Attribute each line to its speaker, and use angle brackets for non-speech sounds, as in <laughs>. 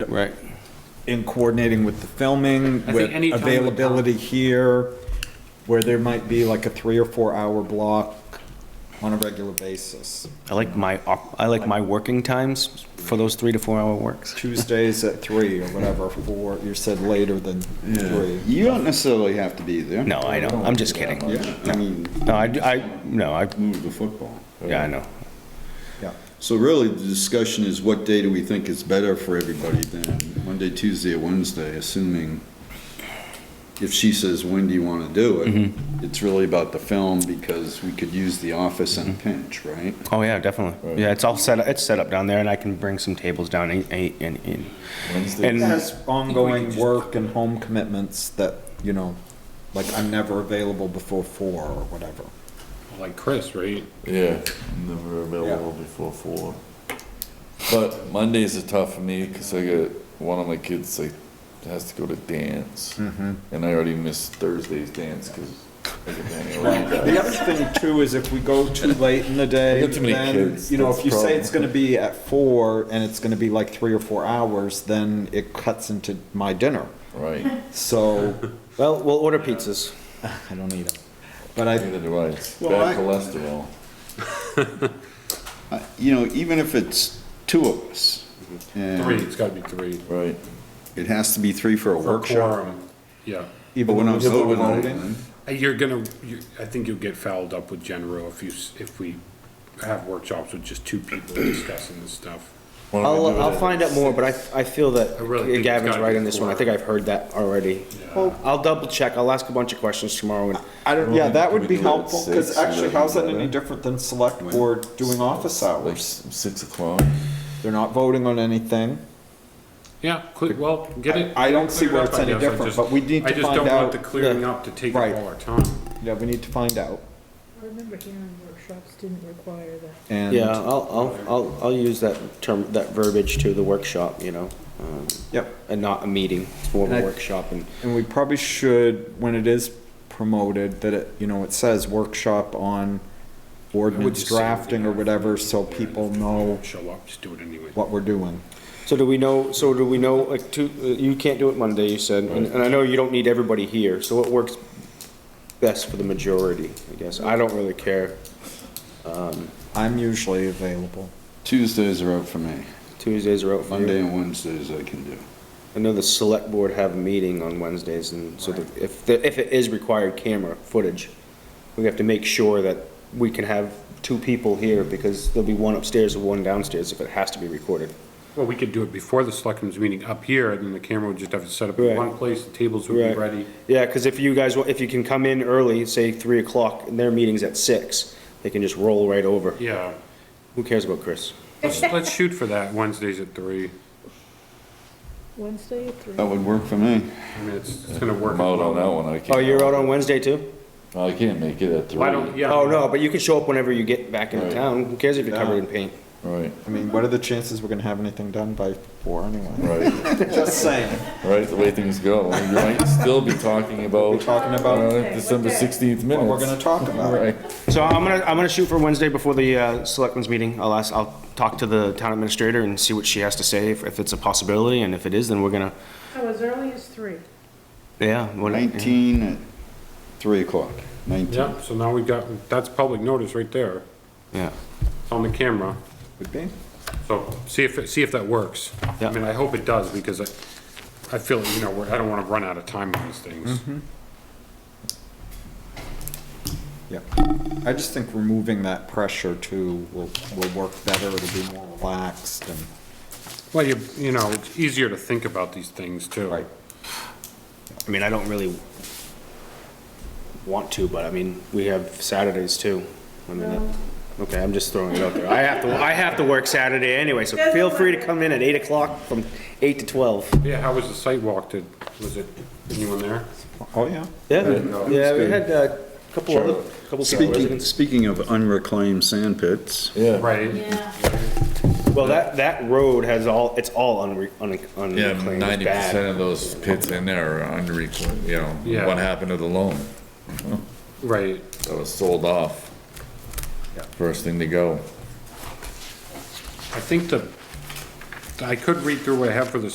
Speaker 1: Right.
Speaker 2: in coordinating with the filming,
Speaker 3: think
Speaker 2: with
Speaker 3: any time would count.
Speaker 2: availability here, where there might be like a three or four hour block on a regular basis.
Speaker 1: I like my, op- I like my working times for those three to four hour works.
Speaker 2: Tuesdays at three or whatever, four, you said later than three.
Speaker 4: You don't necessarily have to be there.
Speaker 1: No, I know, I'm just kidding.
Speaker 4: Yeah, I mean,
Speaker 1: No, I, I, no, I,
Speaker 4: move the football.
Speaker 1: yeah, I know.
Speaker 2: Yeah.
Speaker 4: So really, the discussion is what day do we think is better for everybody then? Monday, Tuesday, or Wednesday, assuming if she says, when do you want to do it?
Speaker 1: Mm-hmm.
Speaker 4: It's really about the film because we could use the office
Speaker 1: Mm-hmm.
Speaker 4: in a pinch, right?
Speaker 1: Oh, yeah, definitely. Yeah, it's all set, it's set up down there and I can bring some tables down and, and, and- and. And,
Speaker 2: There's ongoing work and home commitments that, you know, like I'm never available before four or whatever.
Speaker 3: Like Chris, right?
Speaker 5: Yeah, never available before four. But Mondays are tough for me because I got one of my kids like has to go to dance, and I already missed Thursday's dance because I got to hang around.
Speaker 2: The other thing too is if we go too late in the day,
Speaker 5: I got too many
Speaker 2: then,
Speaker 5: kids,
Speaker 2: you know,
Speaker 5: that's
Speaker 2: if you
Speaker 5: the
Speaker 2: say
Speaker 5: problem.
Speaker 2: it's gonna be at four and it's gonna be like three or four hours, then it cuts into my dinner.
Speaker 5: Right, <laughs>
Speaker 2: So,
Speaker 1: well, we'll order pizzas.
Speaker 2: I don't need them. But I,
Speaker 5: neither do I. It's
Speaker 4: Well, I-
Speaker 5: bad cholesterol.
Speaker 4: Uh, You know, even if it's two of us. and
Speaker 3: Three, it's gotta be three.
Speaker 5: Right.
Speaker 4: It has to be three for a
Speaker 3: For
Speaker 4: workshop.
Speaker 3: quorum, yeah.
Speaker 4: But
Speaker 2: even
Speaker 4: when
Speaker 2: when
Speaker 4: I'm
Speaker 2: I'm still
Speaker 4: voting,
Speaker 2: voting,
Speaker 3: Uh, You're gonna, you, I think you'll get fouled up with General if you, s- if we have workshops with just two people discussing this stuff.
Speaker 5: Why don't we do
Speaker 1: I'll,
Speaker 5: it
Speaker 1: I'll
Speaker 5: at
Speaker 1: find out more, but I, I feel that
Speaker 3: I really think it's
Speaker 1: Gavin's
Speaker 3: gotta
Speaker 1: right
Speaker 3: be
Speaker 1: on this one. I
Speaker 3: four.
Speaker 1: think I've heard that already.
Speaker 3: Well-
Speaker 1: I'll double check. I'll ask a bunch of questions tomorrow and,
Speaker 2: I don't, yeah, that
Speaker 5: Can
Speaker 2: would
Speaker 5: we
Speaker 2: be
Speaker 5: do it at
Speaker 2: helpful, because
Speaker 5: six and
Speaker 2: actually,
Speaker 5: then
Speaker 2: how's that
Speaker 5: do
Speaker 2: any
Speaker 5: that?
Speaker 2: different than select board doing office
Speaker 5: Like
Speaker 2: hours?
Speaker 5: s- six o'clock.
Speaker 2: They're not voting on anything.
Speaker 3: Yeah, cle- well, get it.
Speaker 2: I- I don't see
Speaker 3: cleared
Speaker 2: where
Speaker 3: up,
Speaker 2: it's
Speaker 3: I
Speaker 2: any
Speaker 3: guess. I
Speaker 2: different,
Speaker 3: just-
Speaker 2: but we need to
Speaker 3: I just
Speaker 2: find
Speaker 3: don't
Speaker 2: out-
Speaker 3: want the clearing up to take
Speaker 2: Right.
Speaker 3: up all our time.
Speaker 2: Yeah, we need to find out.
Speaker 6: I remember hearing workshops didn't require that.
Speaker 2: And,
Speaker 1: yeah, I'll, I'll, I'll, I'll use that term, that verbiage to the workshop, you know? um,
Speaker 2: yep,
Speaker 1: And not a meeting, it's more of a
Speaker 2: And I-
Speaker 1: workshop and.
Speaker 2: and we probably should, when it is promoted, that it, you know, it says workshop on ordinance
Speaker 3: just say-
Speaker 2: drafting or whatever, so people know
Speaker 3: Don't Show up, just do it anyway.
Speaker 2: what we're doing.
Speaker 1: So do we know, so do we know, like, two, uh, you can't do it Monday, you said, and and I know you don't need everybody here, so what works best for the majority, I guess? I don't really care.
Speaker 2: I'm usually available.
Speaker 4: Tuesdays are out for me.
Speaker 1: Tuesdays are out for
Speaker 4: Monday
Speaker 1: you.
Speaker 4: and Wednesdays I can do.
Speaker 1: I know the select board have a meeting on Wednesdays, and so the- if, the- if it is required camera footage, we have to make sure that we can have two people here, because there'll be one upstairs and one downstairs if it has to be recorded.
Speaker 3: Well, we could do it before the selectmen's meeting up here, and then the camera would just have to set up
Speaker 1: Right.
Speaker 3: in one place, the tables would be
Speaker 1: Right.
Speaker 3: ready.
Speaker 1: Yeah, because if you guys, wa- if you can come in early, say three o'clock, and their meeting's at six, they can just roll right over.
Speaker 3: Yeah,
Speaker 1: Who cares about Chris?
Speaker 3: let's, let's shoot for that, Wednesdays at three.
Speaker 6: Wednesday at three.
Speaker 4: That would work for me.
Speaker 3: I mean, it's, it's gonna work.
Speaker 5: I'm out on that one. I can't.
Speaker 1: Oh, you're out on Wednesday too?
Speaker 5: I can't make it at three.
Speaker 3: Why don't, yeah.
Speaker 1: Oh, no, but you can show up whenever you get back into
Speaker 5: Right.
Speaker 1: town. Who cares if you're covered in paint?
Speaker 5: Right,
Speaker 2: I mean, what are the chances we're gonna have anything done by four
Speaker 4: <laughs>
Speaker 2: anyway?
Speaker 5: right,
Speaker 2: Just saying.
Speaker 5: right. The way things go, we might still be talking
Speaker 2: We're
Speaker 5: about
Speaker 2: talking about
Speaker 5: uh, December sixteenth
Speaker 2: what
Speaker 5: minutes.
Speaker 2: we're gonna talk about.
Speaker 5: Right.
Speaker 1: So I'm gonna, I'm gonna shoot for Wednesday before the, uh, selectmen's meeting. I'll ask, I'll talk to the town administrator and see what she has to say, if, if it's a possibility, and if it is, then we're gonna,
Speaker 6: Oh, as early as three.
Speaker 1: yeah. what- yeah.
Speaker 4: 19 at 3 o'clock, 19.
Speaker 3: Yeah, so now we've got, that's public notice right there,
Speaker 1: Yeah.
Speaker 3: It's on the camera,
Speaker 2: Would be.
Speaker 3: so see if, it- see if that works.
Speaker 1: Yeah.
Speaker 3: I mean, I hope it does, because I, I feel, you know, we're- I don't wanna run out of time on these things.
Speaker 2: Yeah, I just think removing that pressure too will, will work better, it'll be more relaxed and,
Speaker 3: Well, you, you know, it's easier to think about these things too.
Speaker 2: right,
Speaker 1: I mean, I don't really want to, but I mean, we have Saturdays too. I mean, that- okay, I'm just throwing it out there. I have to, I have to work Saturday anyway, so feel free to come in at eight o'clock from eight to twelve.
Speaker 3: Yeah, how was the site walk, did, was it, anyone there?
Speaker 2: oh yeah.
Speaker 1: Yeah, yeah, we had a couple
Speaker 5: Sure.
Speaker 1: other, couple
Speaker 4: Speaking,
Speaker 1: residents.
Speaker 4: speaking of unreclaimed sand pits,
Speaker 5: Yeah.
Speaker 3: Right,
Speaker 1: Well, that, that road has all, it's all unre, un-
Speaker 5: Yeah,
Speaker 1: unreclaimed, it's
Speaker 5: ninety percent
Speaker 1: bad.
Speaker 5: of those pits in there are unreclaimed, you know,
Speaker 3: Yeah.
Speaker 5: what happened to the loan?
Speaker 3: right.
Speaker 5: That was sold off. First thing to go.
Speaker 3: I think the, I could read through what I have for the